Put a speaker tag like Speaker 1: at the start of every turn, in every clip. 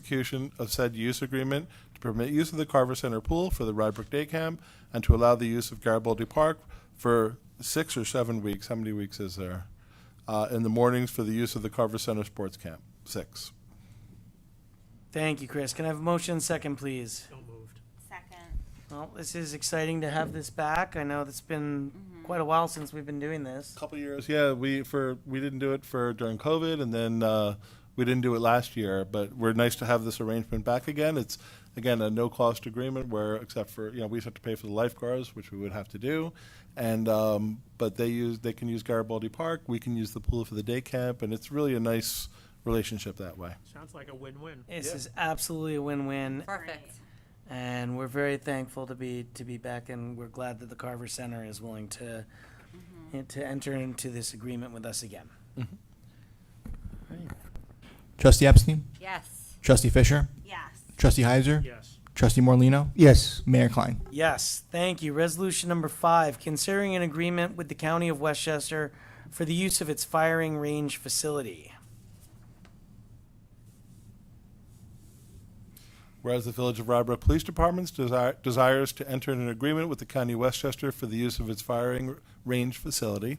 Speaker 1: execution of said use agreement to permit use of the Carver Center Pool for the Rybrook Day Camp and to allow the use of Garibaldi Park for six or seven weeks, how many weeks is there? Uh, in the mornings for the use of the Carver Center Sports Camp, six.
Speaker 2: Thank you, Chris. Can I have a motion second, please?
Speaker 3: Second.
Speaker 2: Well, this is exciting to have this back. I know it's been quite a while since we've been doing this.
Speaker 1: Couple years, yeah, we, for, we didn't do it for, during COVID and then, uh, we didn't do it last year, but we're nice to have this arrangement back again. It's, again, a no-cost agreement where, except for, you know, we just have to pay for the lifeguards, which we would have to do. And, um, but they use, they can use Garibaldi Park, we can use the pool for the day camp, and it's really a nice relationship that way.
Speaker 4: Sounds like a win-win.
Speaker 2: This is absolutely a win-win,
Speaker 3: Perfect.
Speaker 2: and we're very thankful to be to be back. And we're glad that the Carver Center is willing to eh, to enter into this agreement with us again.
Speaker 5: Trustee Epstein?
Speaker 3: Yes.
Speaker 5: Trustee Fisher?
Speaker 3: Yes.
Speaker 5: Trustee Heiser?
Speaker 4: Yes.
Speaker 5: Trustee Morlino,
Speaker 6: yes,
Speaker 5: Mayor Klein?
Speaker 2: Yes, thank you. Resolution number five, considering an agreement with the County of Westchester for the use of its firing range facility.
Speaker 1: Whereas the Village of Rybrook Police Department desi- desires to enter an agreement with the County of Westchester for the use of its firing range facility.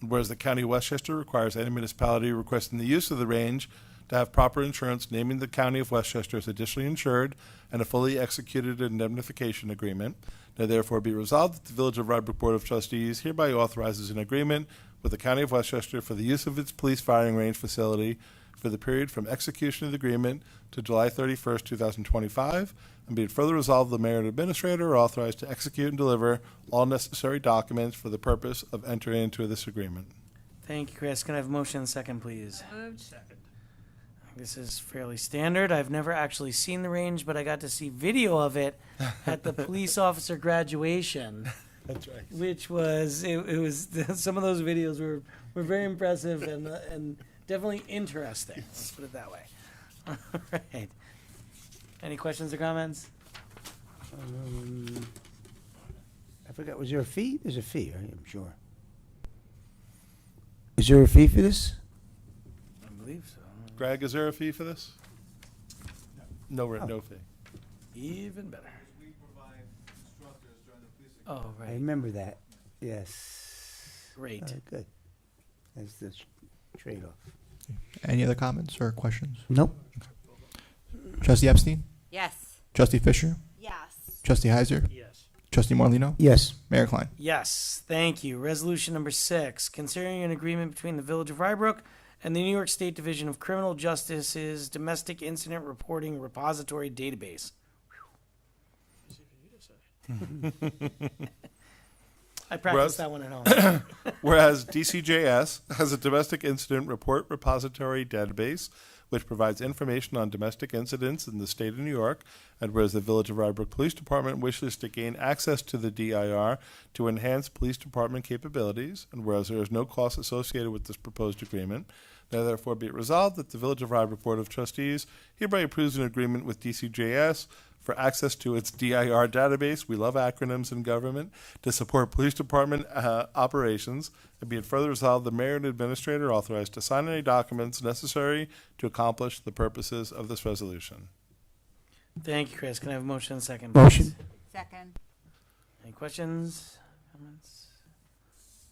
Speaker 1: And whereas the County of Westchester requires any municipality requesting the use of the range to have proper insurance naming the County of Westchester as additionally insured and a fully executed indemnification agreement. Now therefore be resolved that the Village of Rybrook Board of Trustees hereby authorizes an agreement with the County of Westchester for the use of its police firing range facility for the period from execution of the agreement to July 31st, 2025, and be it further resolved, the mayor and administrator are authorized to execute and deliver all necessary documents for the purpose of entering into this agreement.
Speaker 2: Thank you, Chris. Can I have a motion second, please?
Speaker 3: Moved.
Speaker 2: This is fairly standard. I've never actually seen the range, but I got to see video of it at the police officer graduation,
Speaker 1: That's right.
Speaker 2: which was it, it was some of those videos were were very impressive and uh, and definitely interesting. Let's put it that way. All right. Any questions or comments?
Speaker 6: um, I forgot, was there a fee? There's a fee, right, I'm sure. Is there a fee for this?
Speaker 2: I believe so.
Speaker 1: Greg, is there a fee for this? No, re- no fee.
Speaker 2: Even better.
Speaker 7: We provide instructors during the police
Speaker 2: Oh
Speaker 6: I
Speaker 2: right.
Speaker 6: remember that, yes.
Speaker 2: Great.
Speaker 6: All right, Good. That's the tr- trade-off.
Speaker 5: Any other comments or questions?
Speaker 6: Nope,
Speaker 5: Trustee Epstein?
Speaker 3: Yes.
Speaker 5: Trustee Fisher?
Speaker 3: Yes.
Speaker 5: Trustee Heiser?
Speaker 4: Yes.
Speaker 5: Trustee Morlino,
Speaker 6: yes,
Speaker 5: Mayor Klein?
Speaker 2: Yes, thank you. Resolution number six, considering an agreement between the Village of Rybrook and the New York State Division of Criminal Justice's Domestic Incident Reporting Repository Database. I practiced
Speaker 1: Russ?
Speaker 2: that one at home.
Speaker 1: Whereas DCJS has a domestic incident report repository database, which provides information on domestic incidents in the state of New York, and whereas the Village of Rybrook Police Department wishes to gain access to the DIR to enhance police department capabilities, and whereas there is no cost associated with this proposed agreement, now therefore be it resolved that the Village of Rybrook Board of Trustees hereby approves an agreement with DCJS for access to its DIR database. We love acronyms in government to support police department uh, operations. And be it further resolved, the mayor and administrator are authorized to sign any documents necessary to accomplish the purposes of this resolution.
Speaker 2: Thank you, Chris. Can I have a motion and a second? please?
Speaker 6: motion,
Speaker 3: Second.
Speaker 2: Any questions, comments?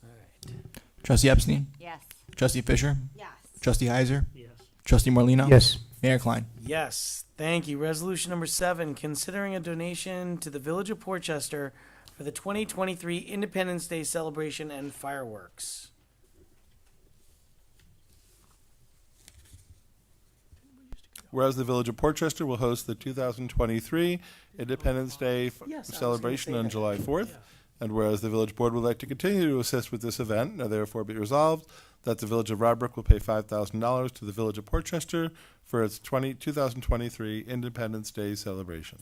Speaker 2: All right.
Speaker 5: Trustee Epstein?
Speaker 3: Yes.
Speaker 5: Trustee Fisher?
Speaker 3: Yes.
Speaker 5: Trustee Heiser?
Speaker 4: Yes.
Speaker 5: Trustee Morlino,
Speaker 6: yes,
Speaker 5: Mayor Klein?
Speaker 2: Yes, thank you. Resolution number seven, considering a donation to the Village of Portchester for the 2023 Independence Day celebration and fireworks.
Speaker 1: Whereas the Village of Portchester will host the 2023 Independence Day f-
Speaker 2: Yes, I was gonna
Speaker 1: celebration
Speaker 2: say
Speaker 1: on
Speaker 2: that.
Speaker 1: July 4th. And whereas the Village Board would like to continue to assist with this event, now therefore be resolved that the Village of Rybrook will pay $5,000 to the Village of Portchester for its 20 2023 Independence Day celebration.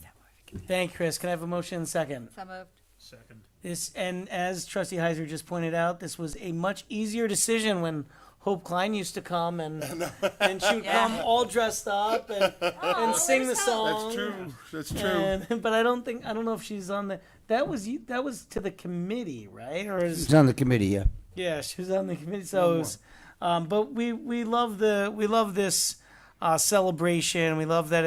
Speaker 2: Thank you, Chris. Can I have a motion and second?
Speaker 3: So moved.
Speaker 4: Second.
Speaker 2: This, and as trustee Heiser just pointed out, this was a much easier decision when Hope Klein used to come and, and she would
Speaker 3: Yeah.
Speaker 2: come all dressed up and, and
Speaker 3: Oh,
Speaker 2: sing the song.
Speaker 1: That's true.
Speaker 2: And- but I don't think, I don't know if she's on the, that was, you- that was to the committee, right? Or is,
Speaker 6: it's on the committee, yeah.
Speaker 2: Yeah, she was on the committee. So, it was, um, but we we love the we love this uh, celebration. We love that